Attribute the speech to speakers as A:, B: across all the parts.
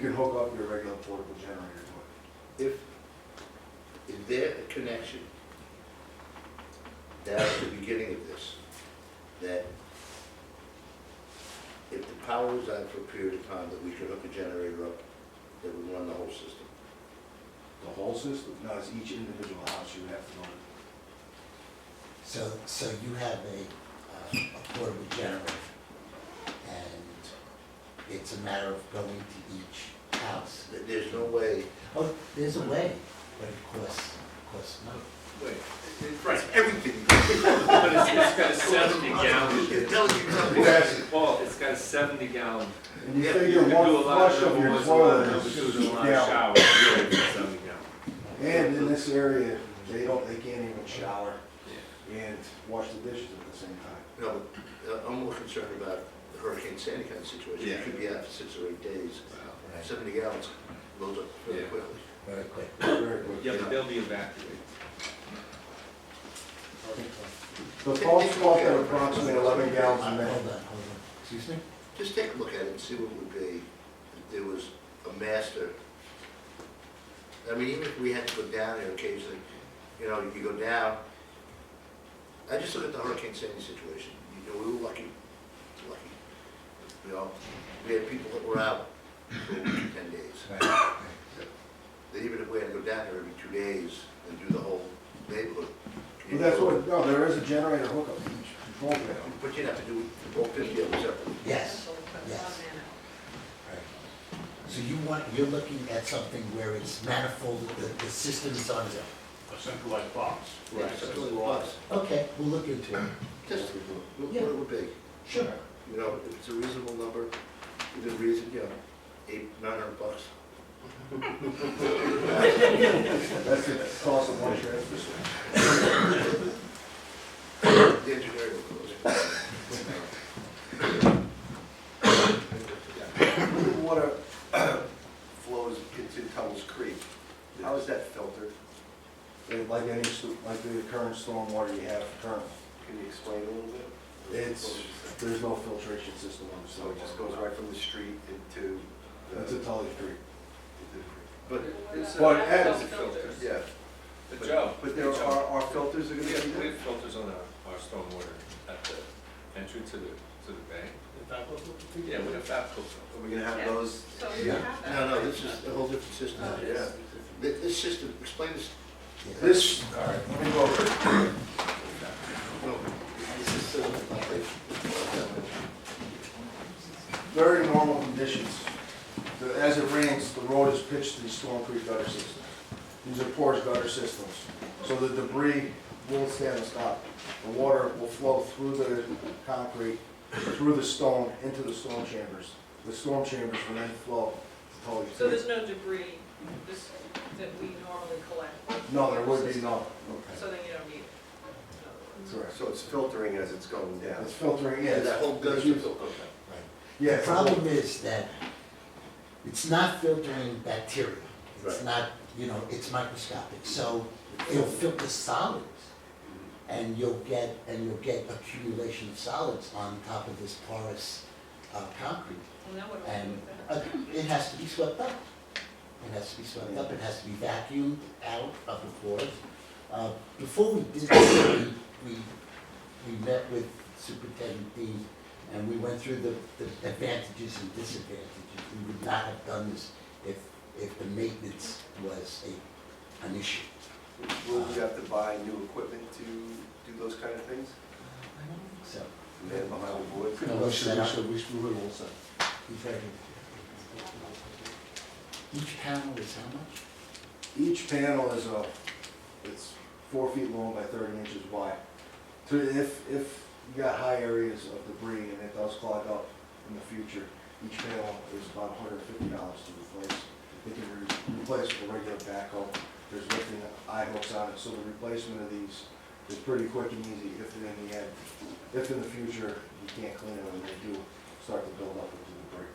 A: You can hook up your regular portable generator to
B: If, is there a connection down at the beginning of this, that if the power was out for a period of time, that we could hook a generator up, that would run the whole system?
A: it. The whole system? No, it's each individual house you would have to go to.
C: So, so you have a, uh, a portable generator, and it's a matter of going to each house.
B: There- There's no way,
C: Oh, there's a way, but of course, of course not.
D: Wait,
B: right, everything,
D: but it's, it's got a seventy
B: it's
D: gallon,
B: telling you something.
A: Yes.
D: Paul, it's got a seventy gallon.
A: And you
B: Yeah,
A: figure
D: You do a
A: one
D: lot
A: flush of
D: number
A: your
D: ones, a lot
A: toilet
D: number
A: is
D: twos, and a lot of
A: down.
D: showers, really, it's a seventy gallon.
A: And in this area, they don't, they can't even shower
D: Yeah.
A: and wash the dishes at the same time.
B: No, uh, I'm more concerned about the Hurricane Sandy kind of situation.
D: Yeah.
B: It could be out for six or eight days.
C: Right.
B: Seventy gallons loads up really
D: Yeah.
B: quickly.
C: Very quick.
A: Very good.
D: Yeah, but they'll be evacuated.
A: The phones cost them approximately eleven gallons a
C: Hold on,
A: minute.
C: hold on. Excuse me?
B: Just take a look at it and see what it would be if there was a master. I mean, even if we had to go down there occasionally, you know, you go down. I just look at the Hurricane Sandy situation. You know, we were lucky, lucky. You know, we had people that were out for a week, ten days.
C: Right, right.
B: That even if we had to go down there every two days and do the whole neighborhood.
A: But that's what, no, there is a generator hookup to each control panel.
B: But you'd have to do all fifty of them separately.
C: Yes, yes. Right. So you want, you're looking at something where it's manifold, the, the system is on its own.
E: a centralized box.
B: Something like plus.
C: Okay, we'll look into it.
B: Just look what it would be.
C: Sure.
B: You know, if it's a reasonable number, within reason, you know, eight, nine hundred bucks.
A: That's the cost of one transfer station.
B: The engineering will close.
F: When the water flows into Tunnels Creek, how is that filtered?
A: It- Like any, s- like the current stormwater you have currently.
F: Can you explain a little bit?
A: It's, there's no filtration system on the
F: So it just goes right from the street into the,
A: It's
F: into
A: a Tully Creek.
F: the
D: But it's. uh,
A: But as-
F: creek? uh, Yeah.
D: But Joe.
F: But there
D: Joe,
F: are, are filters that are
D: We
F: gonna
D: have,
F: be
D: we
F: there?
D: have filters on our, our stormwater at the entrance to the, to the bank. Yeah, we have that filter.
F: Are we gonna have
G: Yeah.
F: those?
G: So you have that.
B: No, no, this is a whole different system.
G: Oh, it
B: Yeah.
G: is?
B: This, this system, explain this,
C: Yeah.
A: This, all right, let me go over it.
B: no, this is sort of like this.
A: Very normal conditions. The- As it rains, the road is pitched to these storm creek gutter systems. These are porous gutter systems, so the debris won't stand us up. The water will flow through the concrete, through the stone, into the storm chambers. The storm chambers will then flow to Tully Creek.
G: So there's no debris this, that we normally collect?
A: No, there would be no.
G: So then you don't need it?
A: Correct.
F: So it's filtering as it's going down?
A: It's filtering
B: Yeah,
A: in.
B: that whole gutter filter.
C: Right.
A: Yeah,
C: The
A: it's a
C: problem is that it's not filtering bacteria. It's
B: Right.
C: not, you know, it's microscopic, so it'll filter solids. And you'll get, and you'll get accumulation of solids on top of this porous, uh, concrete.
G: Well, now what do we do
C: And
G: with
B: Um,
G: that?
C: uh, it has to be swept up. It has to be swept up, it has to be vacuumed out of the floors. Uh, Before we did this, we, we, we met with Superintendent Dean and we went through the, the advantages and disadvantages. We would not have done this if, if the maintenance was a, an issue.
F: Will you have to buy new equipment to do those kind of things?
C: So,
F: Man behind the boards?
C: No, we should- we should-
A: we should, we will set.
C: he's very good. Each panel is how much?
A: Each panel is a, it's four feet long by thirty inches wide. So if, if you got high areas of debris and it does clog up in the future, each panel is about hundred and fifty dollars to replace. They can be replaced with a regular backhoe, there's lifting eye hooks on it, so the replacement of these is pretty quick and easy if in the end, if in the future you can't clean them and they do start to build up into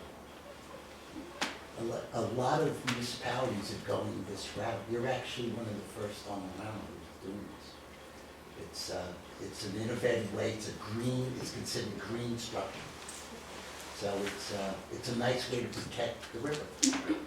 A: the debris.
C: A lot, a lot of municipalities are going this route. You're actually one of the first on the mountain who's doing this. It's, uh, it's an innovative way, it's a green, it's considered green structure. So so it's, uh, it's a nice way to protect the river.